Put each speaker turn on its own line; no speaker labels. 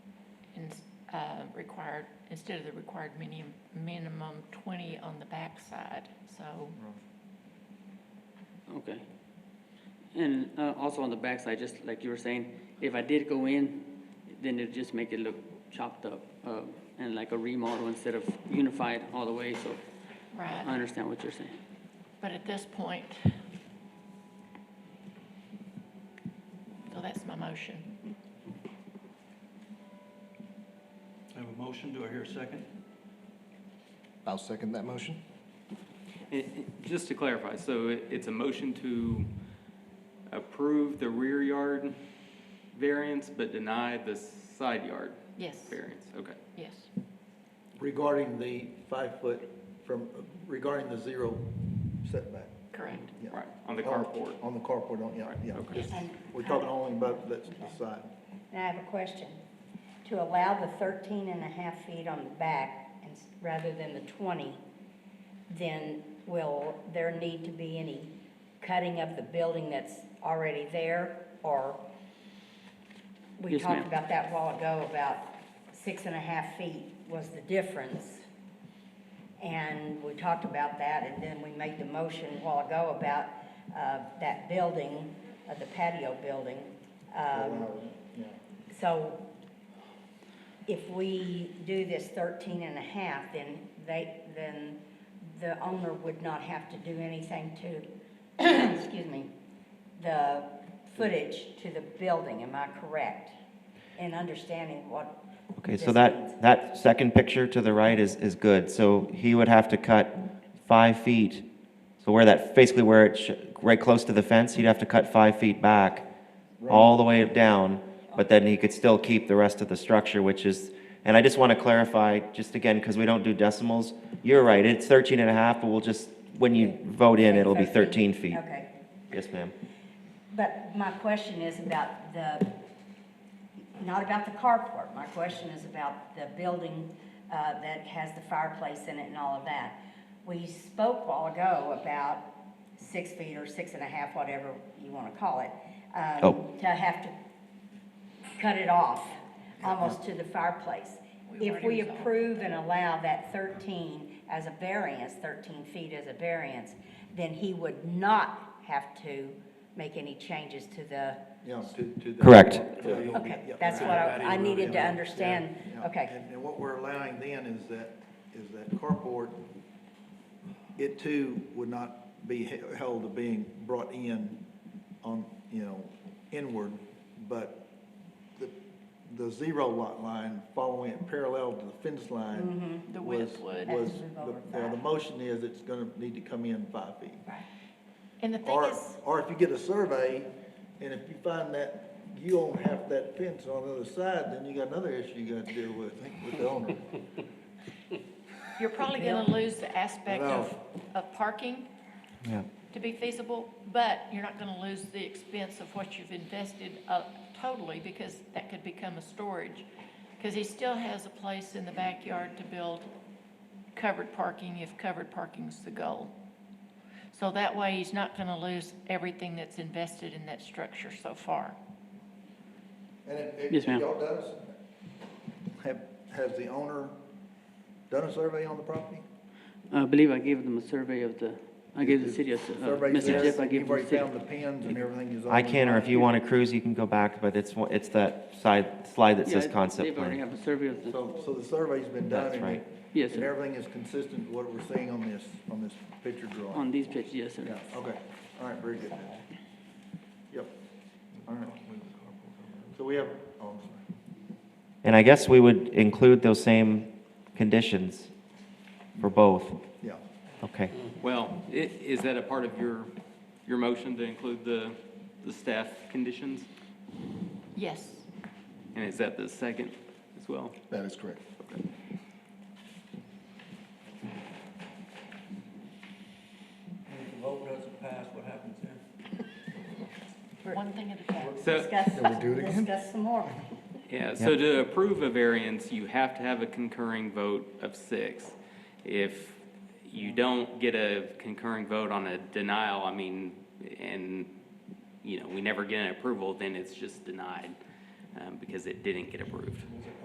uh, required, instead of the required minimum, minimum 20 on the backside, so.
Okay. And uh, also on the backside, just like you were saying, if I did go in, then it'd just make it look chopped up uh, and like a remodel instead of unified all the way, so I
Right,
understand what you're saying.
but at this point, so oh, that's my motion.
I have a motion, do I hear a second?
I'll second that motion.
And- and Just to clarify, so it- it's a motion to approve the rear yard variance, but deny the side yard
Yes,
variance? Okay.
yes,
Regarding the five-foot from, regarding the zero setback.
correct.
yeah.
Right, on the
On-
carport.
On the carport, on, yeah,
Right,
yeah.
okay.
Yes,
And
We're talking only about the the side.
and I have a question. To allow the 13 and a half feet on the back and s- rather than the 20, then will there need to be any cutting of the building that's already there? Or, we
Yes, ma'am.
talked about that a while ago, about six and a half feet was the difference. And we talked about that, and then we made the motion a while ago about uh, that building, uh, the patio building. Um,
Yeah.
so if we do this 13 and a half, then they, then the owner would not have to do anything to, excuse me, the footage to the building, am I correct? In understanding what
Okay, so
this means?
that, that second picture to the right is, is good. So he would have to cut five feet. So where that, basically where it, sh- right close to the fence, he'd have to cut five feet back, all the way down, but then he could still keep the rest of the structure, which is, and I just want to clarify, just again, because we don't do decimals, you're right, it's 13 and a half, but we'll just, when you vote in, it'll be 13 feet.
Okay.
Yes, ma'am.
But my question is about the, not about the carport, my question is about the building uh, that has the fireplace in it and all of that. We spoke a while ago about six feet or six and a half, whatever you want to call it, um,
Oh.
to have to cut it off, almost to the fireplace.
We
If
already
we
resolved
approve and allow that 13 as a variance, 13 feet as a variance, then he would not have to make any changes to the,
Yeah, to, to the.
Correct.
Yeah.
okay, that's what I, I needed to understand,
Yeah.
okay.
And, and what we're allowing then is that, is that carport, it too would not be he- held to being brought in on, you know, inward, but the, the zero lot line following it parallel to the fence
Mm-hmm.
line.
The
was-
width would.
Was,
Has to move
the-
over
well, the
five.
motion is it's gonna need to come in five feet.
And the thing
Or,
is,
or if you get a survey, and if you find that you don't have that fence on the other side, then you got another issue you gotta deal with, with the owner.
you're probably gonna lose the aspect of,
No.
of parking
Yeah.
to be feasible, but you're not gonna lose the expense of what you've invested, uh, totally, because that could become a storage. Cause he still has a place in the backyard to build covered parking, if covered parking's the goal. So that way, he's not gonna lose everything that's invested in that structure so far.
And if, if
Yes, ma'am.
y'all does, have, has the owner done a survey on the property?
I believe I gave them a survey of the, I gave the city, a s- uh,
Survey
Mr.
says
Jeff, I gave
You've
them the
already
city.
found the pins and everything is on.
I
the
can, or if
property.
you want to cruise, you can go back, but it's, one- it's that side, slide that says
Yeah,
concept
They've already
plan.
have a survey of the,
So, so the survey's been done.
That's
and
right.
it-
Yes,
And
sir.
everything is consistent with what we're seeing on this, on this picture drawing.
on these pictures, yes, sir.
Yeah, okay, all right, very good. Yep, all right. So we have, oh, I'm sorry.
And I guess we would include those same conditions for both.
Yeah,
Okay.
Well, i- is that a part of your, your motion to include the, the staff conditions?
Yes,
And is that the second as well?
That is correct.
And if the vote doesn't pass, what happens then?
one thing at a time.
So,
Discuss,
Can we do it again?
discuss some more.
Yeah, so to approve a variance, you have to have a concurring vote of six. If you don't get a concurring vote on a denial, I mean, and, you know, we never get an approval, then it's just denied, um, because it didn't get approved.